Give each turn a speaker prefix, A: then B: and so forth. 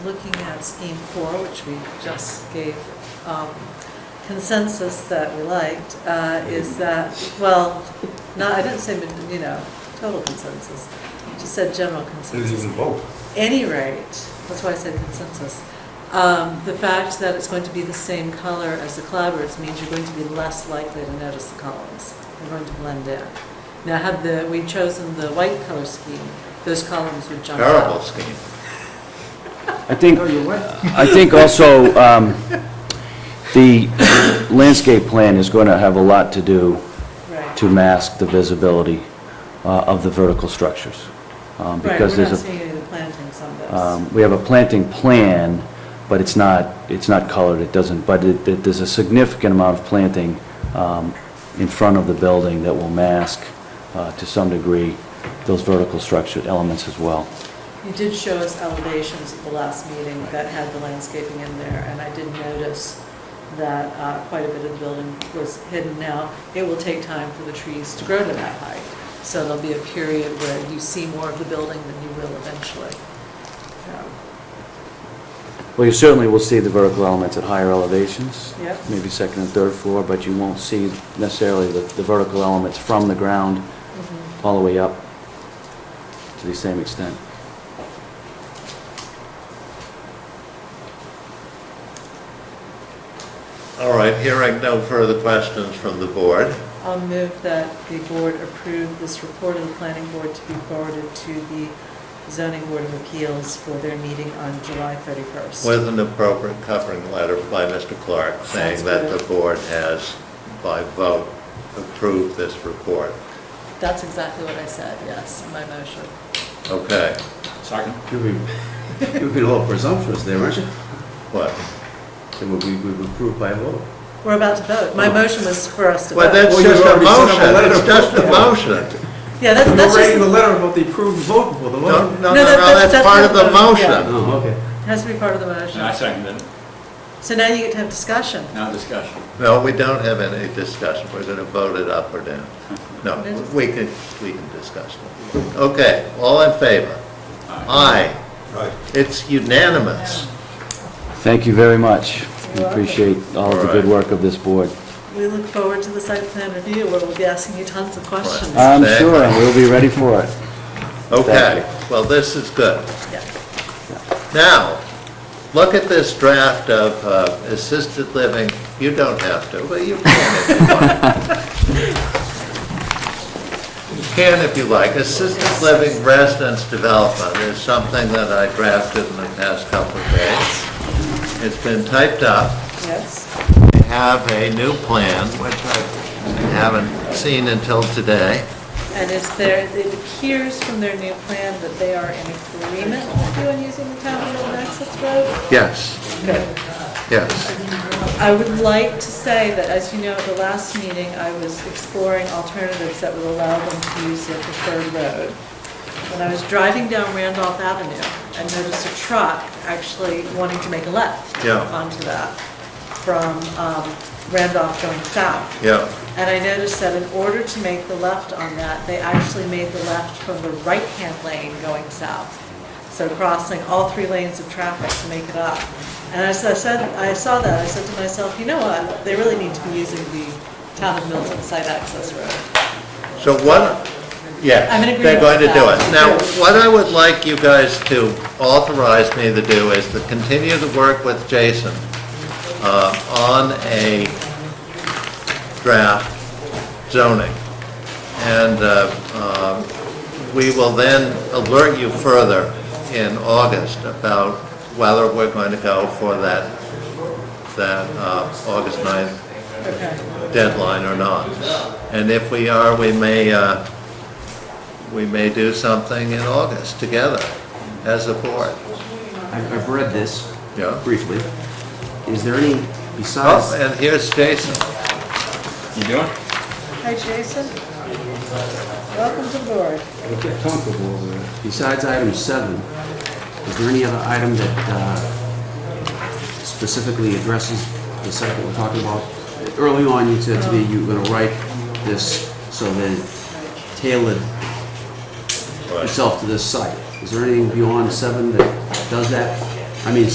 A: looking at Scheme 4, which we just gave um, consensus that we liked, uh, is that, well, no, I didn't say, you know, total consensus, I just said general
B: There's
A: consensus.
B: even vote.
A: Any rate, that's why I said consensus, um, the fact that it's going to be the same color as the clapboards means you're going to be less likely to notice the columns. They're going to blend in. Now, had the, we'd chosen the white color scheme, those columns would jump out.
C: Terrible scheme.
D: I think,
A: Oh,
D: I think also, um, the landscape plan is going to have a lot to do
A: Right.
D: to mask the visibility uh, of the vertical structures. um,
A: Right,
D: because
A: we're not
D: there's a.
A: seeing any of the plantings on this.
D: Um, We have a planting plan, but it's not, it's not colored, it doesn't, but it- it- there's a significant amount of planting um, in front of the building that will mask, uh, to some degree, those vertical structured elements as well.
A: You did show us elevations at the last meeting that had the landscaping in there, and I did notice that uh, quite a bit of the building was hidden now. It will take time for the trees to grow to that height, so there'll be a period where you see more of the building than you will eventually. So,
D: Well, you certainly will see the vertical elements at higher elevations.
A: Yep.
D: Maybe second and third floor, but you won't see necessarily the the vertical elements from the ground all the way up to the same extent.
C: All right, hearing no further questions from the board.
A: I'll move that the board approve this report of the planning board to be forwarded to the zoning board of appeals for their meeting on July 31st.
C: With an appropriate covering letter by Mr. Clark
A: Sounds
C: saying that
A: good.
C: the board has, by vote, approved this report.
A: That's exactly what I said, yes, in my motion.
C: Okay,
E: Second.
B: You'd be, you'd be a little presumptuous there, aren't you?
C: what?
B: It would be, we would approve by vote.
A: We're about to vote. My motion was for us to
C: Well,
A: vote.
C: that's
B: Well, you
C: just a
B: already sent a
C: motion,
B: letter.
C: it's just a motion.
A: Yeah, that's, that's
B: We're writing the
A: just,
B: letter about the approved vote for the
C: No,
B: vote.
A: No, that-
C: no, no, no,
A: that's-
C: that's part of the
A: that's- yeah.
C: motion.
B: Oh, okay.
A: has to be part of the
E: And I
A: motion.
E: second it.
A: So now you get to have discussion.
E: Now discussion.
C: No, we don't have any discussion, we're going to vote it up or down. No, we can, we can discuss it. Okay, all in favor? Aye. It's unanimous.
D: Thank you very much. We
A: You're welcome.
D: appreciate all of the good
C: All
D: work of this board.
A: We look forward to the site plan review where we'll be asking you tons of questions.
C: Right.
D: I'm
C: Thank
D: sure
C: you.
D: we'll be ready for it.
C: Okay, well, this is good.
A: Yeah.
C: Now, look at this draft of uh, assisted living, you don't have to, but you can if you want. You can if you like. Assisted living residence development is something that I drafted in the past couple of days. It's been typed up.
A: Yes,
C: We have a new plan, which I haven't seen until today.
A: and it's there, it appears from their new plan that they are in agreement with you on using the town road access road.
C: Yes,
A: Good.
C: yes.
A: I would like to say that, as you know, at the last meeting, I was exploring alternatives that would allow them to use their preferred road. When I was driving down Randolph Avenue, I noticed a truck actually wanting to make a left
C: Yeah.
A: onto that from um, Randolph going south.
C: Yeah.
A: And I noticed that in order to make the left on that, they actually made the left from the right-hand lane going south. So crossing all three lanes of traffic to make it up. And as I said, I saw that, I said to myself, you know what, they really need to be using the town of Milton site access road.
C: So what, yes,
A: I'm in agreement
C: they're going to
A: with
C: do it.
A: that.
C: Now, what I would like you guys to authorize me to do is to continue to work with Jason uh, on a draft zoning. And uh, um, we will then alert you further in August about whether we're going to go for that, that uh, August 9th
A: Okay.
C: deadline or not. And if we are, we may, uh, we may do something in August together as a board.
F: I've I've read this
C: Yeah.
F: briefly. Is there any,
C: Oh,
F: besides,
C: and here's Jason.
E: You doing?
A: Hi, Jason. Welcome to board.
F: besides item seven, is there any other item that uh, specifically addresses the site that we're talking about? Early on, you said to me you were going to write this so that it tailored itself to this site. Is there anything beyond seven that does that? I mean,